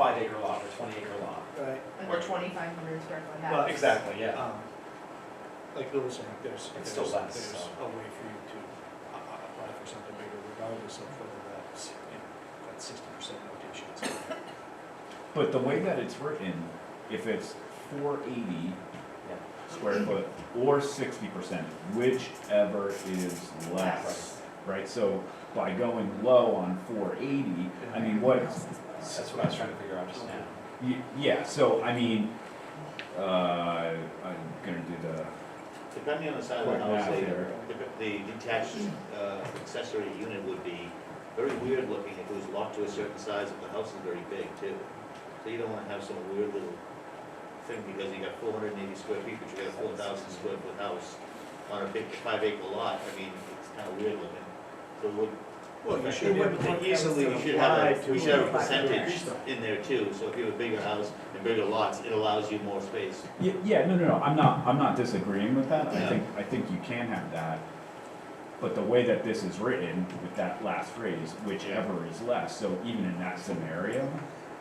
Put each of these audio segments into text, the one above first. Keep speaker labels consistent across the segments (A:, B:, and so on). A: acre lot or twenty acre lot.
B: right?
C: Or twenty-five hundred square foot
B: Well,
C: house.
A: Exactly, yeah.
B: Um, Like Bill was saying, there's,
A: It's
B: there's,
A: still less,
B: there's
A: so.
B: a way for you to uh, uh, apply for something bigger regardless of whether that's, you know, that sixty percent notation is.
D: But the way that it's written, if it's four eighty
A: Yeah.
D: square foot or sixty percent, whichever is less. Right, so by going low on four eighty, I mean, what,
A: That's what I was trying to figure out just now.
D: y- yeah, so I mean, uh, I'm gonna do the,
E: Depending on the size of
D: Quick
E: the house,
D: math here.
E: the, the detached uh, accessory unit would be very weird looking if it was locked to a certain size, if the house is very big too. So you don't wanna have some weird little thing because you got four hundred and eighty square feet, but you got a four thousand square foot house on a big five acre lot, I mean, it's kinda weird looking. So it would,
B: Well, you
E: It
B: should be able
F: wouldn't
B: to
F: look like
B: easily
F: it's
E: you should have
B: apply
E: a,
B: to.
E: you should have a
F: apply to
E: percentage
B: increase them.
E: in there too, so if you have a bigger house and bigger lots, it allows you more space.
D: y- yeah, no, no, no, I'm not, I'm not disagreeing with that, I think, I think you can have that. But the way that this is written with that last phrase, whichever is less, so even in that scenario,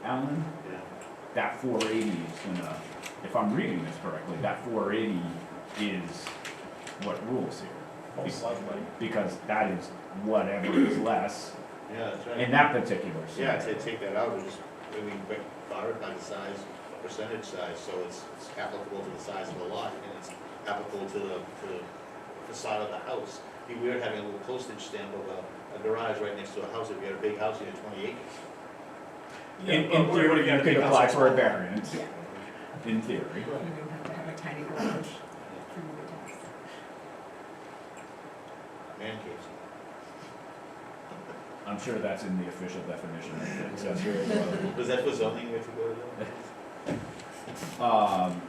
D: Alan,
E: Yeah.
D: that four eighty is gonna, if I'm reading this correctly, that four eighty is what rules here.
A: Most likely.
D: Because that is whatever is less
E: Yeah, that's right.
D: in that particular
E: Yeah,
D: scenario.
E: to take that out, we just, I mean, but fire by the size, percentage size, so it's it's applicable to the size of the lot, and it's applicable to the, to the facade of the house. Be weird having a little postage stamp of a, a garage right next to a house, if you had a big house, you had twenty acres.
D: In,
B: Yeah,
D: in
B: but
D: theory,
B: we're
D: you
B: gonna
D: could
B: be
D: apply for a
B: outside.
D: variance,
F: Yeah,
D: in theory.
F: you would have to have a tiny garage for your tax.
E: Man caves.
D: I'm sure that's in the official definition of the accessory dwelling.
E: Was that for zoning you have to go to? though?
D: Um,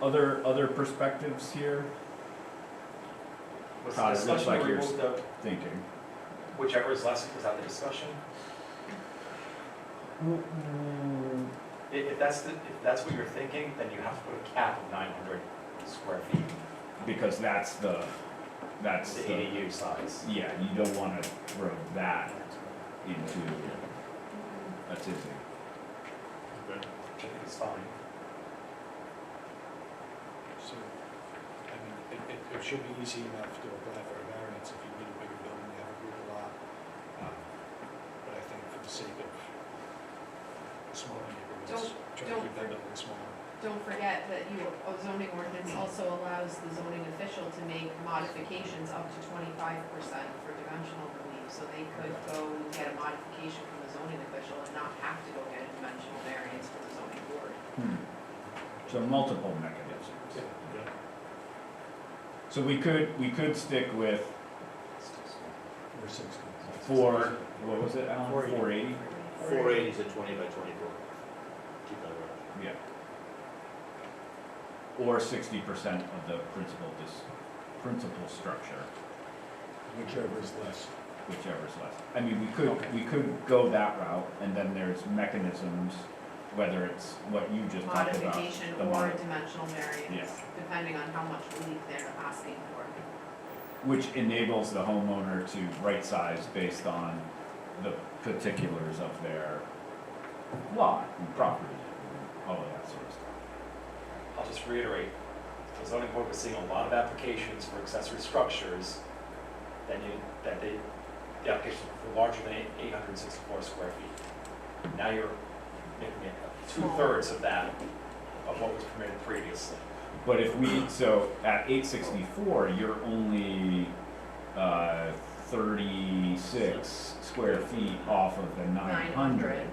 D: other, other perspectives here,
A: Was the
D: God, it looks
A: discussion
D: like
A: to
D: you're-
A: remove the,
D: thinking.
A: whichever is less, was that the discussion? I- If, that's the, if that's what you're thinking, then you have to put a cap of nine hundred square feet,
D: Because that's the, that's
A: the
D: the,
A: ADU size.
D: yeah, you don't wanna throw that into, that's it.
A: Which I think is fine.
B: So, I mean, it, it, it should be easy enough to apply for a variance if you need a bigger building, you have a bigger lot. Um, But I think for the sake of smaller neighborhoods,
C: Don't-
B: try to
C: don't
B: keep that
C: for-
B: building smaller.
C: Don't forget that your zoning ordinance also allows the zoning official to make modifications up to twenty-five percent for dimensional relief. So they could go and get a modification from the zoning official and not have to go get a dimensional variance from the zoning board.
D: Hmm. So multiple mechanisms.
E: Yeah.
D: So we could, we could stick with
B: Or sixty.
D: four, what was it, Alan?
B: 480.
D: Four eighty?
E: Four eighties at twenty by twenty-four. Keep that around.
D: Yeah. Or sixty percent of the principal dis, principal structure,
B: Whichever is less.
D: whichever is less. I mean, we could, we could go that route, and then there's mechanisms, whether it's what you just talked about.
C: Modification
D: the
C: or
D: mod-
C: dimensional variance, depending on how much relief they're asking for.
D: Which enables the homeowner to right-size based on the particulars of their lot and property, all of that sort of stuff.
A: I'll just reiterate, the zoning board was seeing a lot of applications for accessory structures that you, that they, the applications were larger than eight hundred and sixty-four square feet. Now you're making it two-thirds of that, of what was permitted previously.
D: But if we, so at eight sixty-four, you're only, uh, thirty-six square feet off of the nine hundred.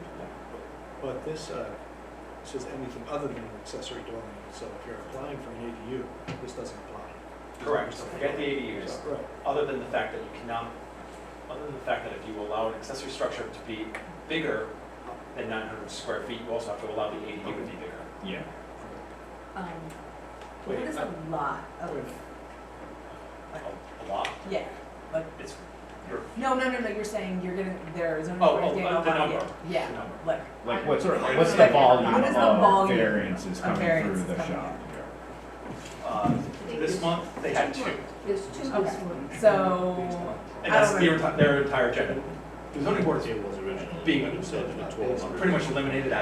B: But this, uh, says anything other than an accessory dwelling, so if you're applying for an ADU, this doesn't apply.
A: Correct, so forget the ADUs,
B: So, Right.
A: other than the fact that you cannot, other than the fact that if you allow an accessory structure to be bigger than nine hundred square feet, you also have to allow the ADU to be bigger.
D: Yeah,
F: Um, What is a lot of,
A: A- A lot,
F: yeah, like,
A: it's, you're,
F: no, no, no, no, you're saying you're gonna, there's an.
A: Oh,
F: ordinance
A: oh,
F: getting
A: uh, the
F: a lot,
A: number.
F: Yeah,
A: The
F: yeah,
A: number.
F: like,
D: like what's, our-
A: Like-
D: what's the
F: Like, what
D: volume
F: is the volume
D: of variances
F: of
D: coming through
F: variances
D: the
F: coming
D: shop?
A: uh, this month, they had two.
G: There's two
F: Okay.
G: this one.
F: so,
A: And
F: I
A: that's
F: don't
A: their, enti- their entire agenda. The zoning board
E: It was originally.
A: Being-
E: but it said it was
A: has
E: 1200.
A: pretty much eliminated that